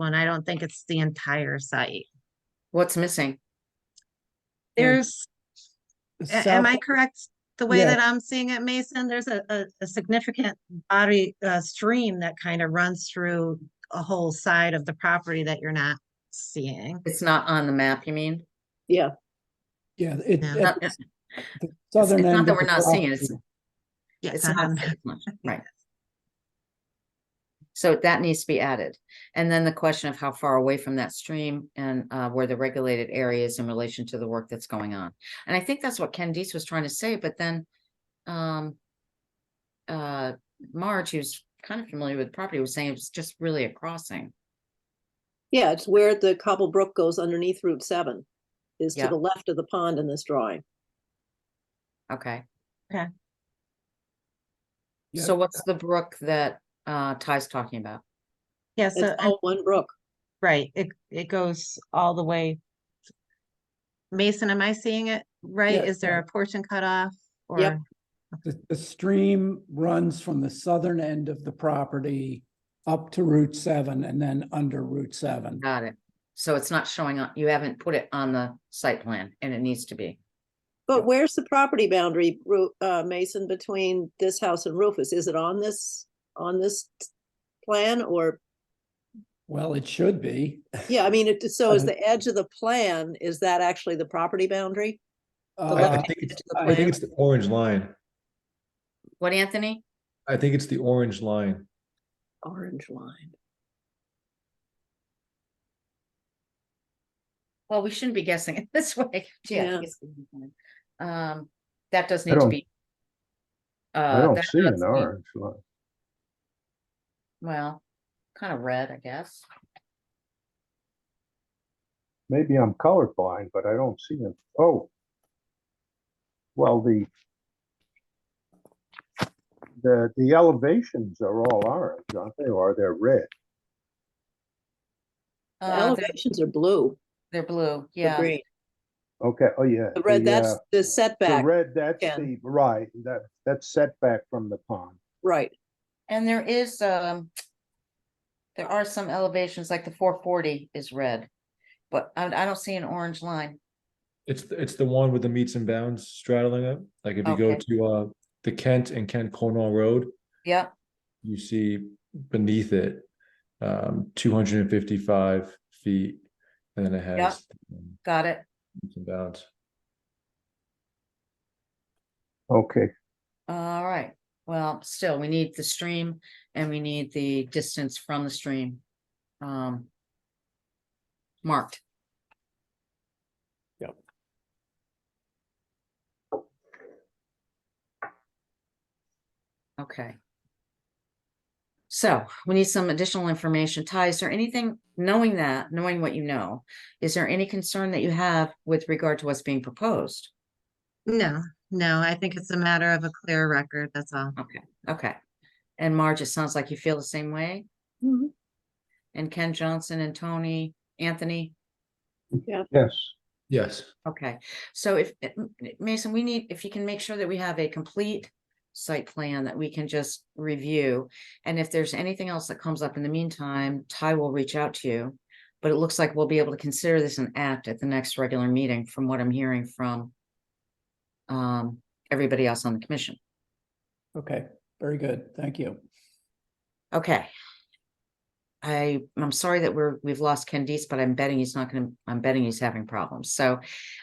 one. I don't think it's the entire site. What's missing? Yeah. There's, a- am I correct? The way Yeah. that I'm seeing it, Mason, there's a, a, a significant body, uh, stream that kind of runs through a whole side of the property that you're not seeing. It's not on the map, you mean? Yeah, Yeah, it, Yeah. at Not- It's the Uh, it's southern end. not that of we're the not seeing it, it's, property. Yeah, it's it's on not, the- seeing much, right. So that needs to be added. And then the question of how far away from that stream and uh, where the regulated area is in relation to the work that's going on. And I think that's what Ken Dees was trying to say, but then um, uh, Marge, who's kind of familiar with the property, was saying it was just really a crossing. yeah, it's where the Cobble Brook goes underneath Route seven, is to Yeah. the left of the pond in this drawing. Okay. Okay. Yeah. So what's the brook that uh, Ty's talking about? yeah, It's so, I- all one brook. right, it, it goes all the way. Mason, am I seeing it right? Yeah, Is there a portion cut off? Yep. Or, The, the stream runs from the southern end of the property up to Route seven and then under Route seven. Got it. So it's not showing on, you haven't put it on the site plan and it needs to be. But where's the property boundary, Ru- uh, Mason, between this house and Rufus? Is it on this, on this t- plan or, Well, it should be. yeah, I mean, it, so is Uh, the edge of the plan, is that actually the property boundary? Uh, I- I left think edge it's- of the I plan. think it's the orange line. What, Anthony? I think it's the orange line. Orange line. Well, we shouldn't be guessing it this way. Gee, I Yeah. think it's gonna be fine. Um, that does I need to don't- be. I uh, don't that see does an need- orange line. Well, kind of red, I guess. Maybe I'm colorblind, but I don't see them. Oh. Well, the the, the elevations are all orange, aren't they? Or they're red. The Uh, they're, elevations are blue, they're blue, or yeah. green. Okay, oh, yeah. The red, that's uh, the The setback, red, that's Ken. the, right, that, that's setback from the pond. right. And there is, um. There are some elevations, like the four forty is red, but I, I don't see an orange line. It's, th- it's the one with the meets and bounds straddling it. Like if you go Okay. to, uh, the Kent and Kent Cornwall Road, Yep, you see beneath it, um, two hundred and fifty-five feet. And then it has um, got it. meets and bounds. Okay, All right, well, still, we need the stream and we need the distance from the stream. Um. Marked. Yep. Okay. So we need some additional information. Ty, is there anything, knowing that, knowing what you know, is there any concern that you have with regard to what's being proposed? no, no, I think it's a matter of a clear record, that's all. Okay, okay. And Marge, it sounds like you feel the same way? Mm-hmm. Mhm. And Ken Johnson and Tony, Anthony? yes, Yes. Okay, so if, eh, m- eh, Mason, we need, if you can make sure that we have a complete site plan that we can just review. And if there's anything else that comes up in the meantime, Ty will reach out to you. But it looks like we'll be able to consider this an act at the next regular meeting from what I'm hearing from um, everybody else on the commission. Okay, very good. Thank you. Okay. I, I'm sorry that we're, we've lost Candice, but I'm betting he's not gonna, I'm betting he's having problems. So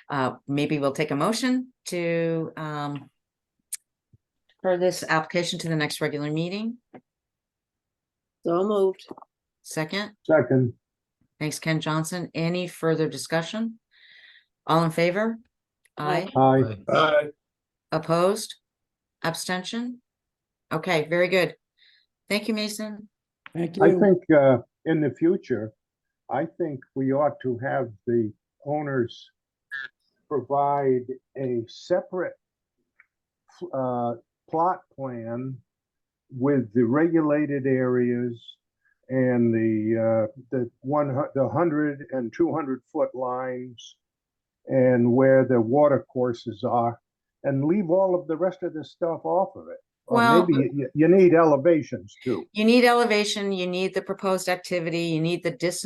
uh, maybe we'll take a motion to um for this application to the next regular meeting. So moved. Second, second, thanks Ken Johnson. Any further discussion? All in favor? Aye. Aye. I, Opposed? Abstention? Okay, very good. Thank you, Mason. Thank I you. think, uh, in the future, I think we ought to have the owners provide a separate uh, plot plan with the regulated areas and the, uh, the one, hu- the hundred and two hundred foot lines and where the water courses are, and leave all of the rest of the stuff off of it. Or Well- maybe you, you need elevations too. You need elevation, you need the proposed activity, you need the distance